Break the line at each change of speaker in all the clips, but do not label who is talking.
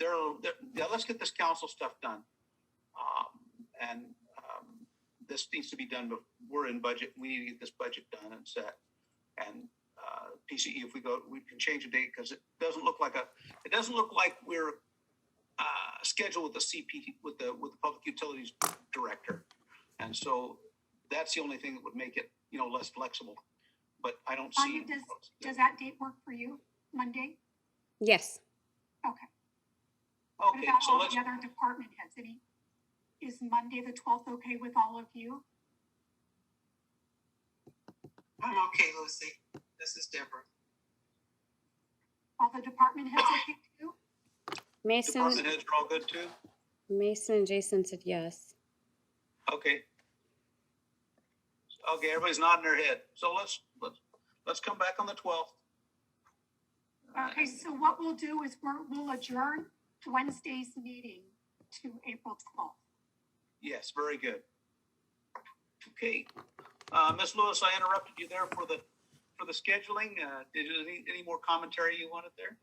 so th- yeah, let's get this council stuff done. Um, and, um, this needs to be done, but we're in budget. We need to get this budget done and set. And, uh, PCE, if we go, we can change the date because it doesn't look like a, it doesn't look like we're, uh, scheduled with the CP, with the, with the Public Utilities Director. And so that's the only thing that would make it, you know, less flexible. But I don't see.
Tanya, Uh, Does that date work for you, Monday?
Yes.
What
Okay,
about
so
all
let's,
the other department heads? Any, is Monday the twelfth okay with all of you?
I'm okay, Lucy. This is Deborah.
All the department heads okay too?
Mason,
department heads are all good too?
Mason and Jason said yes.
Okay. Okay, everybody's nodding their head. So let's, let's, let's come back on the twelfth. Uh,
Okay, so what we'll do is we're, we'll adjourn Wednesday's meeting to April twelfth.
Yes, very good. Okay, uh, Ms. Lewis, I interrupted you there for the, for the scheduling. Uh, did you, any, any more commentary you wanted there?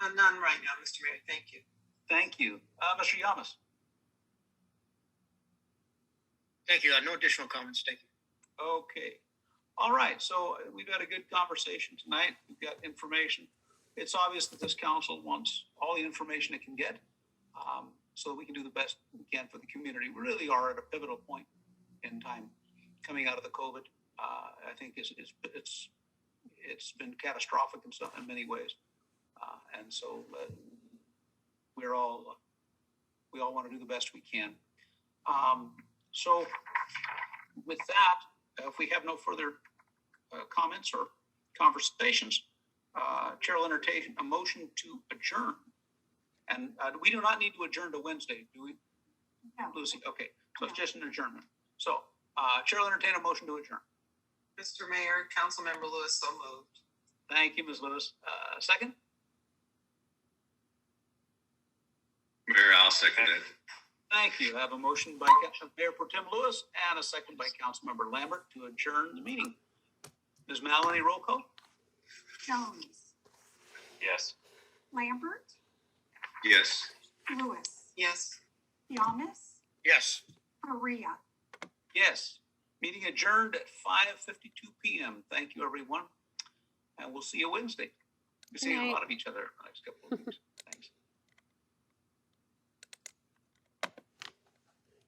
Uh, None right now, Mr. Mayor. Thank you.
Thank you. Uh, Mr. Yamas?
Thank you. Uh, No additional comments. Thank you.
Okay. All right. So uh, we've had a good conversation tonight. We've got information. It's obvious that this council wants all the information it can get um, so that we can do the best we can for the community. We really are at a pivotal point in time coming out of the COVID. Uh, I think it's, it's, it's, it's been catastrophic in some, in many ways. Uh, and so uh, we're all, we all want to do the best we can. Um, so with that, uh, if we have no further uh, comments or conversations, uh, Chair will entertain a motion to adjourn. And uh, we do not need to adjourn to Wednesday, do we,
No.
Lucy? Okay, so it's just an adjournment. So uh, Chair will entertain a motion to adjourn.
Mr. Mayor, Councilmember Lewis, so moved.
Thank you, Ms. Lewis. Uh, Second?
Mayor, I'll second it.
Thank you. I have a motion by Council- Mayor Pro Tem Lewis and a second by Councilmember Lambert to adjourn the meeting. Ms. Maloney, roll call?
Jones,
Yes.
Lambert,
Yes.
Lewis,
Yes.
Yamas,
Yes.
Maria.
Yes. Meeting adjourned at five fifty-two PM. Thank you, everyone. And we'll see you Wednesday. We'll
Good
see a
night.
lot of each other in the next couple of weeks.